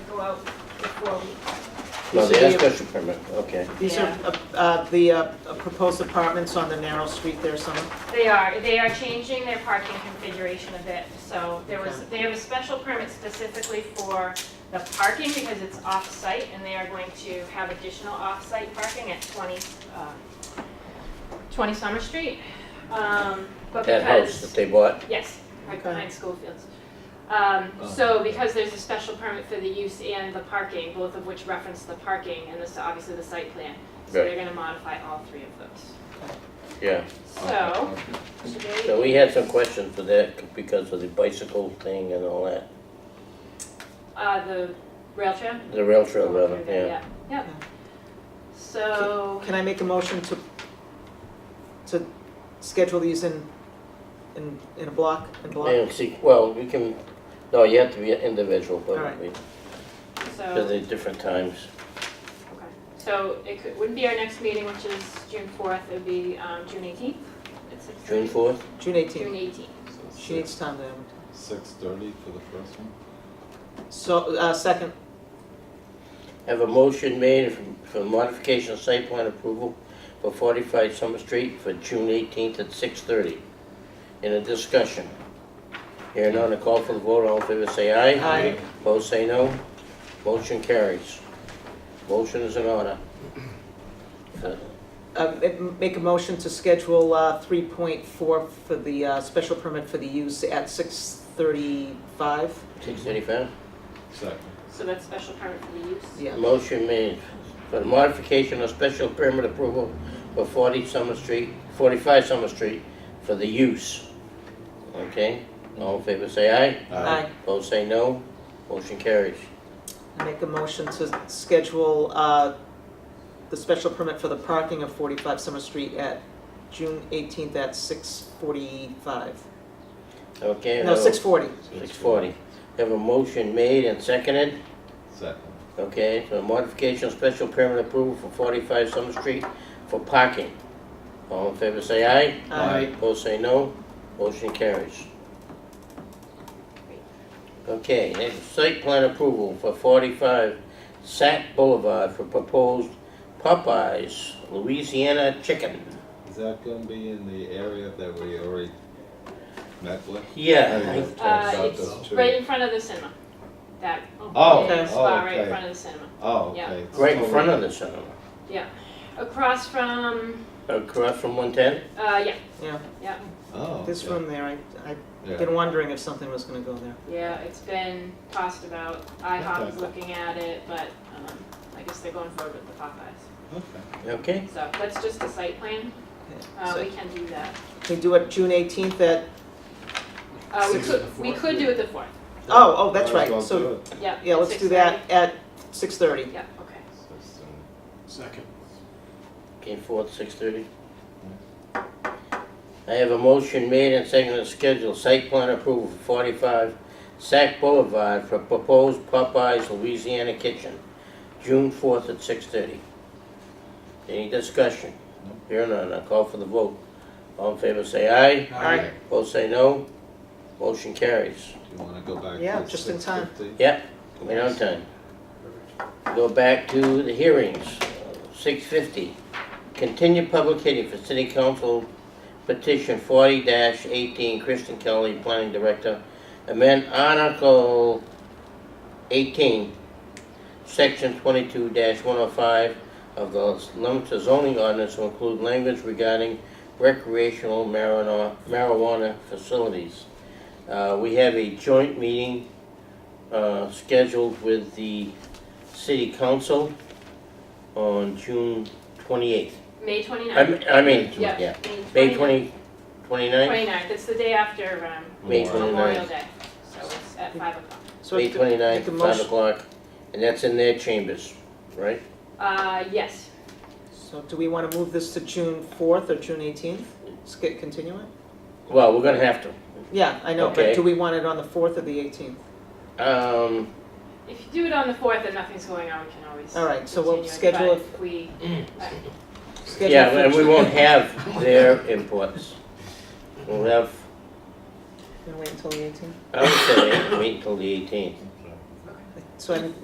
out before we, No, These they are have the- special permit, okay. These are Yeah. uh, uh, the uh, proposed apartments on the narrow street there, some, they are, they are changing their parking configuration a bit. So there was, they have a special permit specifically for the parking because it's off-site and they are going to have additional off-site parking at 20, uh, 20 Summer Street. Um, But That house because- that they bought, Yes, right Okay. behind Schofields. Um, So because there's a special permit for the use and the parking, both of which reference the parking and this, obviously the site plan. So Right. they're gonna modify all three of those. yeah. So, today. So we had some questions for that because of the bicycle thing and all that, Uh, the rail trail? the rail trail rather, Okay, yeah. Yep. So, can I make a motion to, to schedule these in, in, in a block, in block? And see, well, we can, no, you have to be an individual, All but right. we, because so, they're different times. okay. So it could, wouldn't be our next meeting, which is June fourth, it would be, um, June eighteenth? June fourth, June June eighteenth, eighteenth. she needs time to um, advertise. Six thirty for the first one? So, uh, second, have a motion made for- for modification of site plan approval for forty-five Summer Street for June eighteenth at six thirty. In a discussion. Hearing none, a call for the vote, all in favor say aye. Aye. Both say no. Motion carries. Motion is in order. Uh, uh, ma- make a motion to schedule, uh, three point four for the, uh, special permit for the use at six thirty-five? Six thirty-five? Second. So that's special permit for the use? Yeah, Motion made for the modification of special permit approval for 40 Summer Street, 45 Summer Street for the use. Okay? All in favor say aye. Uh, aye. Both say no. Motion carries. Make a motion to schedule uh, the special permit for the parking of 45 Summer Street at June 18th at 6:45. Okay? No, 6:40. 6:40. Have a motion made and seconded. Second. Okay, so modification of special permit approval for 45 Summer Street for parking. All in favor say aye. Aye. Opposed, say no. Motion carries. Okay, next, site plan approval for 45 Sac Boulevard for proposed Popeyes Louisiana Chicken. Is that gonna be in the area that we already met with? Yeah, Talked Uh, about those it's two. right in front of the cinema. That Oh, big oh, spot right in okay. front of the cinema. Oh, yeah. okay. I- right in front of the cinema, Across from, across from 110. uh, yeah, Oh, This okay. room there, I- Yeah. I've been wondering if something was going to go there. yeah, it's been tossed about. IHOP is Okay. looking at it, but, um, I guess they're going forward with the Popeyes. Okay. oh, Okay, So that's just a site plan. Uh, So we can do that. Can we do it June 18th at, Uh, we Six could, to the we fourth, could yeah. do it the fourth, oh, oh, that's Might as right. well So, do it. yeah. yeah, at let's do 6:30. that at 6:30. Yeah, okay. Six Second. okay, 4th, 6:30. I have a motion made and seconded to schedule site plan approval for 45 Sac Boulevard for proposed Popeyes Louisiana Kitchen, June 4th at 6:30. Any discussion? Here none, I'll call for the vote. All in favor say aye, Aye. both say no, motion carries. Do you wanna go back to six Yeah, just fifty? in time. Yep, we on time. Go back to the hearings, six fifty. Continue public hearing for city council petition forty eighteen, Kristen Kelly, planning director. Amend article eighteen, section twenty-two one oh five of the Leominster zoning ordinance to include language regarding recreational marijuana, marijuana facilities. Uh, we have a joint meeting uh, scheduled with the city council on June 28th. May twenty-ninth. I mean- I mean, Yeah. yeah, May May 20, 29th? Twenty-ninth, it's the day after, um, May Memorial. 29th. Memorial Day, so it's at five o'clock. So May if you could make 29th, a 5 motion- o'clock, and that's in their chambers, right? Uh, yes, So do we want to move this to June 4th or June 18th? Let's get- Continue it? Well, we're gonna have to. Yeah, I know, but Okay. do we want it on the 4th or the 18th? Um, if you do it on the fourth and nothing's going on, we can always All right, so we'll continue it, schedule but it- if we, Schedule yeah, for and we June- won't have their inputs. We'll have, Gonna wait until the 18th? I would say, wait until the 18th. So I'm